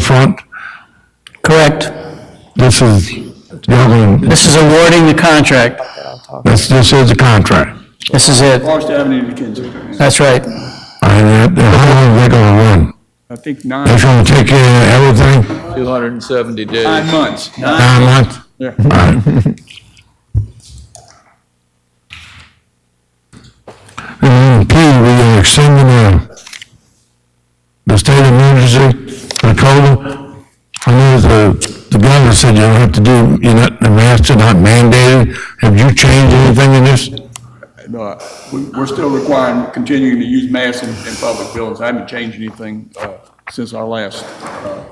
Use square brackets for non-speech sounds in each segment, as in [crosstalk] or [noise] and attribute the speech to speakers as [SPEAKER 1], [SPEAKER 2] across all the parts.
[SPEAKER 1] front?
[SPEAKER 2] Correct.
[SPEAKER 1] This is, y'all gonna,
[SPEAKER 2] This is awarding the contract.
[SPEAKER 1] this, this is the contract.
[SPEAKER 2] This is it.
[SPEAKER 3] Forest Avenue to Kensington.
[SPEAKER 2] That's right.
[SPEAKER 1] And that, how long they gonna run?
[SPEAKER 3] I think nine,
[SPEAKER 1] That's gonna take care of everything,
[SPEAKER 4] 270 days.
[SPEAKER 3] nine months. Nine-
[SPEAKER 1] nine months?
[SPEAKER 3] Yeah.
[SPEAKER 1] All right. And then P, Ah, we are extending the, the state of emergency for COVID. I know the, the governor said you don't have to do, you're not, the masks are not mandated. Have you changed anything in this?
[SPEAKER 3] No, I- we- We're still requiring, continuing to use masks in, in public buildings. I haven't changed anything, uh, since our last, uh,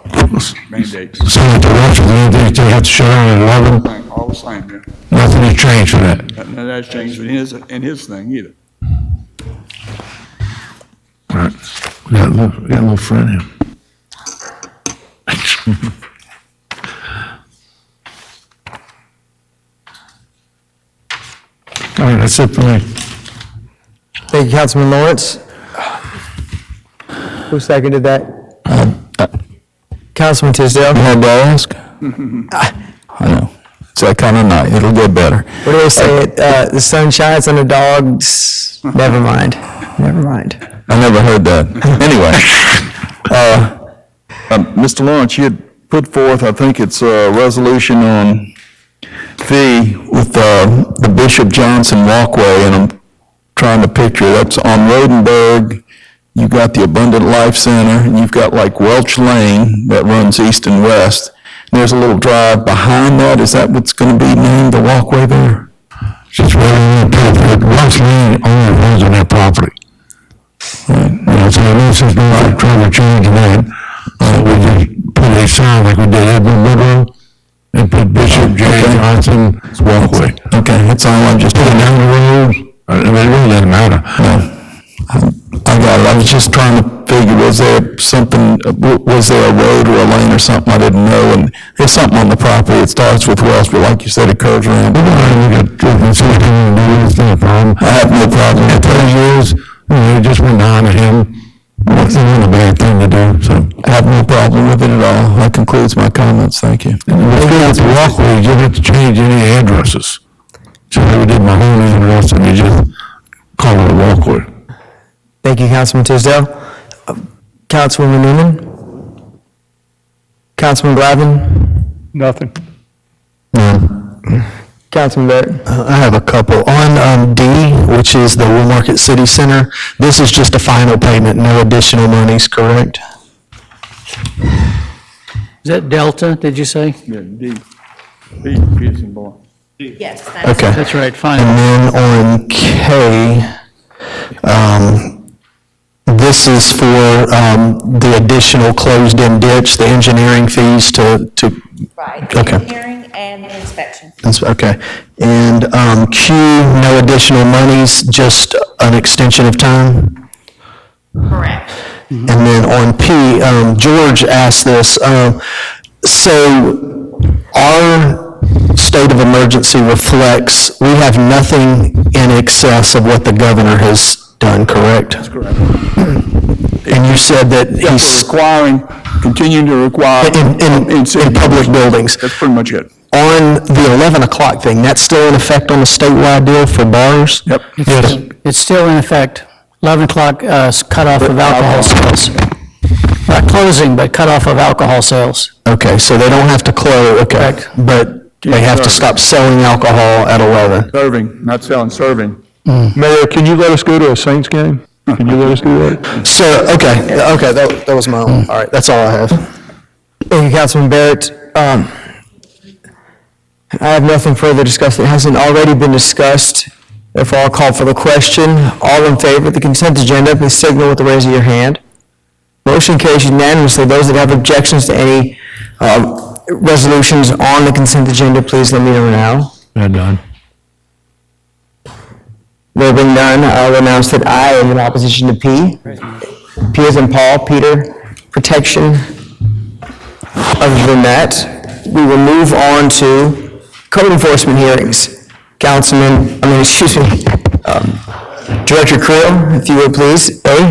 [SPEAKER 3] mandate.
[SPEAKER 1] So that the restaurant, they, they have to shut down at eleven?
[SPEAKER 3] Same, All the same, yeah.
[SPEAKER 1] Nothing has changed for that.
[SPEAKER 3] Nothing has changed in his, in his thing either.
[SPEAKER 1] All right. We got a little, we got a little friend here. [laughs] All right, that's it for me.
[SPEAKER 5] Thank you, Councilman Lawrence. Who seconded that?
[SPEAKER 6] Uh,
[SPEAKER 5] Councilman Tisdale.
[SPEAKER 7] More ask? I know. It's that kind of night. It'll get better.
[SPEAKER 5] What do they say? Uh, the sun shines on the dogs. Never mind. Never mind.
[SPEAKER 7] I never heard that. Anyway, uh, um, Mr. Lawrence, you had put forth, I think it's a resolution on fee with uh, the Bishop Johnson Walkway, and I'm trying to picture, that's on Rodenberg, you've got the Abundant Life Center, and you've got like Welch Lane that runs east and west. There's a little drive behind that. Is that what's going to be named, the walkway there?
[SPEAKER 1] Just waiting on the paper. Once lien only runs on that property. You know, so this is not trying to change that. Uh, we just put a sign like we did Edmund Woodrow and put Bishop J.
[SPEAKER 7] Okay.
[SPEAKER 1] Johnson walkway.
[SPEAKER 7] Okay, that's all I just,
[SPEAKER 1] Put it down the road. I mean, it really doesn't matter.
[SPEAKER 7] I got it, I was just trying to figure, was there something, w- was there a road or a lane or something I didn't know? And there's something on the property, it starts with Wells, but like you said, it curves around.
[SPEAKER 1] Well, we got different things going on, it's not a problem.
[SPEAKER 7] I have no problem
[SPEAKER 1] At
[SPEAKER 7] with
[SPEAKER 1] those
[SPEAKER 7] that,
[SPEAKER 1] years, you know, just went on to him, it's not a bad thing to do, so.
[SPEAKER 7] I have no problem with it at all. That concludes my comments, thank you.
[SPEAKER 1] If you have to walk, we you don't have to change any addresses. So I did my whole address, and you just call it a walkway.
[SPEAKER 5] Thank you, Councilman Tisdale. Uh, Councilwoman Newman. Councilman Glavin.
[SPEAKER 8] Nothing.
[SPEAKER 5] Councilman Barrett.
[SPEAKER 6] Uh, I have a couple. On um, D, which is the Woolmarket City Center, this is just a final payment, no additional monies, correct?
[SPEAKER 2] Is that Delta, did you say?
[SPEAKER 3] Yeah, D, D, Peterson Boy.
[SPEAKER 9] Yes, that's
[SPEAKER 6] Okay.
[SPEAKER 2] That's right, fine.
[SPEAKER 6] And then on K, um, this is for um, the additional closed-in ditch, the engineering fees to, to
[SPEAKER 9] right.
[SPEAKER 6] Okay.
[SPEAKER 9] Engineering and inspection.
[SPEAKER 6] That's, okay. And um, Q, no additional monies, just an extension of time?
[SPEAKER 9] Correct.
[SPEAKER 6] And then on P, um, George asked this, um, so our state of emergency reflects, we have nothing in excess of what the governor has done, correct? That's correct. And you said that
[SPEAKER 3] We're
[SPEAKER 6] he's,
[SPEAKER 3] Requiring, continuing to require.
[SPEAKER 6] in, in, in public buildings.
[SPEAKER 3] That's pretty much it.
[SPEAKER 6] On the 11 o'clock thing, that's still in effect on the statewide deal for bars?
[SPEAKER 3] Yep.
[SPEAKER 6] Yes.
[SPEAKER 2] It's still in effect. 11 o'clock uh, s- cutoff of alcohol sales. Not closing, but cutoff of alcohol sales.
[SPEAKER 6] Okay, so they don't have to close, okay.
[SPEAKER 2] Correct.
[SPEAKER 6] But they have to stop
[SPEAKER 3] Sorry.
[SPEAKER 6] selling alcohol at 11.
[SPEAKER 3] Serving, not selling, serving.
[SPEAKER 8] Mayor, can you let us go to a Saints game? Can you let us do that?
[SPEAKER 6] So, okay, okay, that, that was my own, all right, that's all I have.
[SPEAKER 5] Thank you, Mm. Councilman Barrett. Um, I have nothing further to discuss that hasn't already been discussed. Therefore, I'll call for the question. All in favor of the consent agenda, please signal with the raise of your hand. Motion carries unanimously. Those that have objections to any uh, resolutions on the consent agenda, please let me know now.
[SPEAKER 1] They're done.
[SPEAKER 5] There being none, I will announce that I am in opposition to P. P is in Paul, Peter, protection. Other than that, we will move on to code enforcement hearings. Councilman, I mean, excuse me, um, Director Creel, if you would please, A.